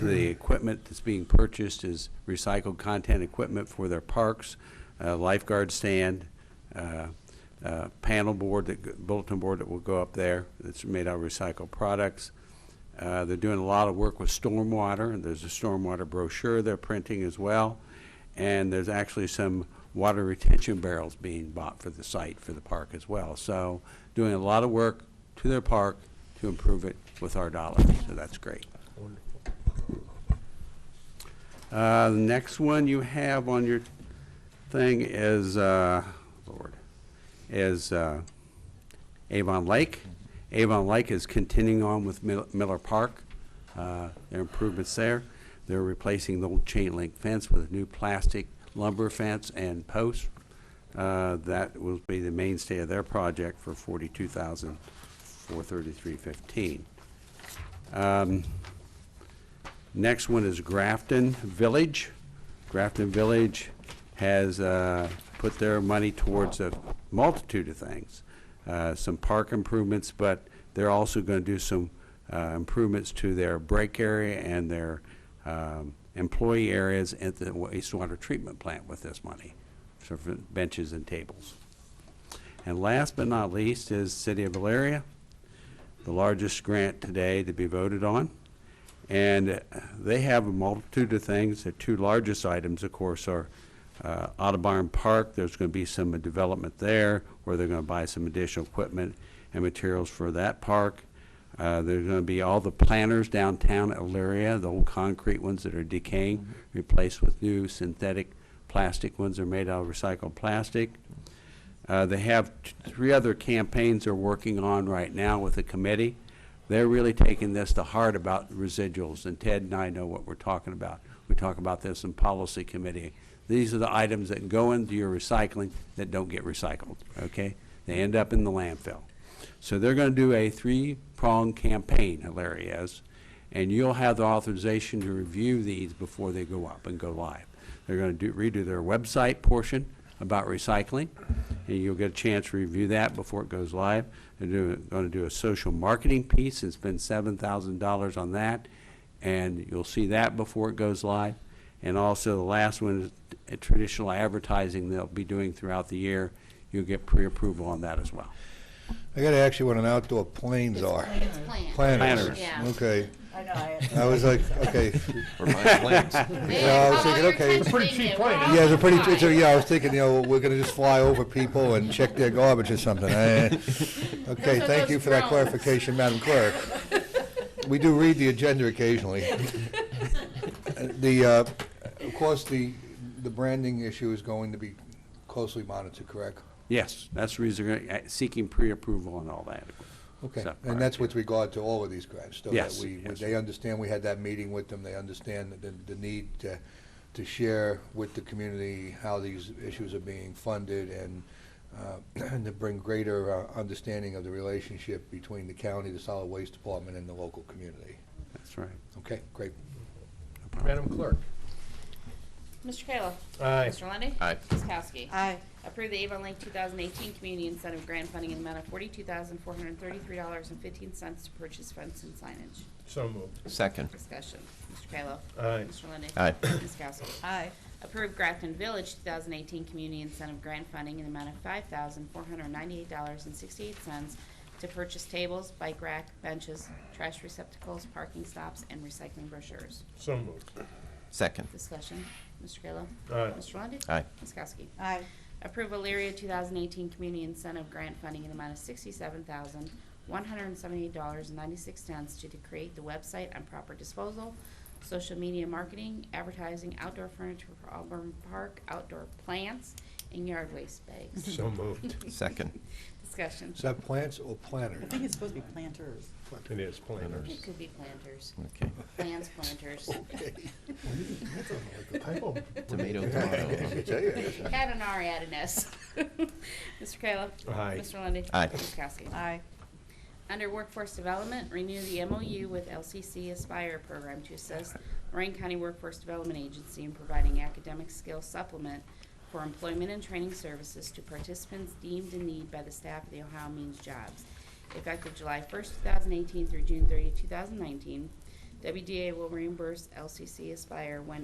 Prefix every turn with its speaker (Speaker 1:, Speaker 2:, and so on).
Speaker 1: The equipment that's being purchased is recycled content equipment for their parks, uh, lifeguard stand, uh, uh, panel board, that g- bulletin board that will go up there, that's made out of recycled products. Uh, They're doing a lot of work with stormwater, and there's a stormwater brochure they're printing as well. And there's actually some water retention barrels being bought for the site, for the park as well. So doing a lot of work to their park to improve it with our dollars, so that's great. Uh, The next one you have on your thing is, uh, Lord, is uh, Avon Lake. Avon Lake is continuing on with Mil- Miller Park, uh, their improvements there. They're replacing the old chain link fence with a new plastic lumber fence and posts. Uh, That will be the mainstay of their project for forty-two thousand, four thirty-three fifteen. Next one is Grafton Village. Grafton Village has uh, put their money towards a multitude of things, Uh, some park improvements, but they're also going to do some uh, improvements to their break area and their um, employee areas at the wastewater treatment plant with this money, so for benches and tables. And last but not least is City of Valeria, the largest grant today to be voted on. And uh, they have a multitude of things. The two largest items, of course, are uh, Audubon Park. There's going to be some development there where they're going to buy some additional equipment and materials for that park. Uh, There's going to be all the planters downtown Elyria, the old concrete ones that are decaying, replaced with new synthetic plastic ones that are made out of recycled plastic. Uh, They have t- three other campaigns they're working on right now with the committee. They're really taking this to heart about residuals, and Ted and I know what we're talking about. We talk about this in policy committee. These are the items that go into your recycling that don't get recycled, okay? They end up in the landfill. So they're going to do a three-pronged campaign, Hilaria is, and you'll have the authorization to review these before they go up and go live. They're going to do, redo their website portion about recycling, and you'll get a chance to review that before it goes live. They're doing, going to do a social marketing piece and spend seven thousand dollars on that, and you'll see that before it goes live. And also, the last one is t- traditional advertising they'll be doing throughout the year. You'll get pre-approval on that as well.
Speaker 2: I gotta ask you what an outdoor planes are.
Speaker 3: It's planned.
Speaker 2: Planners.
Speaker 3: Yeah.
Speaker 2: Okay.
Speaker 4: I know, I
Speaker 2: I was like, okay.
Speaker 5: Or my planes.
Speaker 3: Man,
Speaker 2: Yeah, I was
Speaker 3: how
Speaker 2: thinking,
Speaker 3: your
Speaker 2: okay.
Speaker 3: attention
Speaker 2: It's
Speaker 6: a pretty
Speaker 3: being there.
Speaker 6: cheap plane.
Speaker 3: We're
Speaker 2: Yeah, it's a pretty,
Speaker 3: all
Speaker 2: it's a,
Speaker 3: fine.
Speaker 2: yeah, I was thinking, you know, we're gonna just fly over people and check their garbage or something. Eh. Okay,
Speaker 3: Those are
Speaker 2: thank you
Speaker 3: those
Speaker 2: for that
Speaker 3: drones.
Speaker 2: clarification, Madam Clerk. We do read the agenda occasionally. The, uh, of course, the, the branding issue is going to be closely monitored, correct?
Speaker 1: Yes, that's the reason, they're gonna- uh, seeking pre-approval and all that.
Speaker 2: Okay,
Speaker 1: So,
Speaker 2: and that's with regard to all of these grants, so that
Speaker 1: Yes,
Speaker 2: we,
Speaker 1: yes.
Speaker 2: they understand, we had that meeting with them, they understand the, the need to, to share with the community how these issues are being funded and, uh, and to bring greater uh, understanding of the relationship between the county, the solid waste department, and the local community.
Speaker 1: That's right.
Speaker 2: Okay, great.
Speaker 6: Madam Clerk.
Speaker 3: Mr. Kayla.
Speaker 6: Aye.
Speaker 3: Mr. Lundy.
Speaker 5: Aye.
Speaker 3: Ms. Kowski.
Speaker 4: Aye.
Speaker 3: Approve the Avon Lake 2018 Community Incentive Grant Funding in the amount of $42,433.15 to purchase fence and signage.
Speaker 6: So moved.
Speaker 5: Second.
Speaker 3: Discussion. Mr. Kayla.
Speaker 6: Aye.
Speaker 3: Mr. Lundy.
Speaker 5: Aye.
Speaker 3: Ms. Kowski.
Speaker 4: Aye.
Speaker 3: Approve Grafton Village 2018 Community Incentive Grant Funding in the amount of $5,498.68 to purchase tables, bike rack, benches, trash receptacles, parking stops, and recycling brochures.
Speaker 6: So moved.
Speaker 5: Second.
Speaker 3: Discussion. Mr. Kayla.
Speaker 6: Aye.
Speaker 3: Mr. Lundey.
Speaker 5: Aye.
Speaker 3: Ms. Kowski.
Speaker 4: Aye.
Speaker 3: Approve Elyria 2018 Community Incentive Grant Funding in the amount of $67,178.96 to create the website on proper disposal, social media marketing, advertising, outdoor furniture for Auburn Park, outdoor plants, and yard waste bags.
Speaker 6: So moved.
Speaker 5: Second.
Speaker 3: Discussion.
Speaker 2: Is that plants or
Speaker 4: I
Speaker 2: planters?
Speaker 4: think it's supposed to be planters.
Speaker 6: It is planners.
Speaker 3: It could be planters,
Speaker 5: Okay.
Speaker 3: plants, planters.
Speaker 6: Typo.
Speaker 5: Tomato, tomato.
Speaker 3: Add an R, add an S. Mr. Kayla.
Speaker 6: Aye.
Speaker 3: Mr. Lundey.
Speaker 5: Aye.
Speaker 3: Ms. Kowski.
Speaker 4: Aye.
Speaker 3: Under Workforce Development, renew the MOU with LCC Aspire Program to assist Lorraine County Workforce Development Agency in providing academic skill supplement for employment and training services to participants deemed in need by the staff of the Ohio Means Jobs, effective July 1st, 2018 through June 30, 2019. WDA will reimburse LCC Aspire when